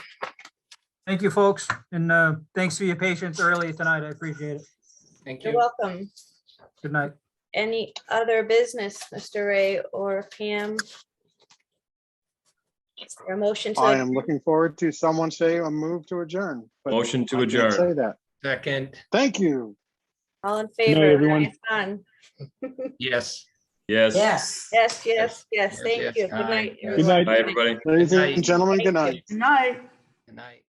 Thank you, folks, and uh, thanks for your patience early tonight. I appreciate it. Thank You're you. welcome. Good night. Any other business, Mr. Ray or Pam? Is there a motion I to, am looking forward to someone say a move to adjourn. but Motion I to can't adjourn. Say that. Second, Thank you. all in Night, favor? everyone. Aye, Done. yes. Yes. Yes. Yes, yes, yes. Yes, Thank yes, you. Good aye. night. Good everyone. night. Bye, everybody. Ladies Good night. and gentlemen, Thank you. good night. Good night. Good night.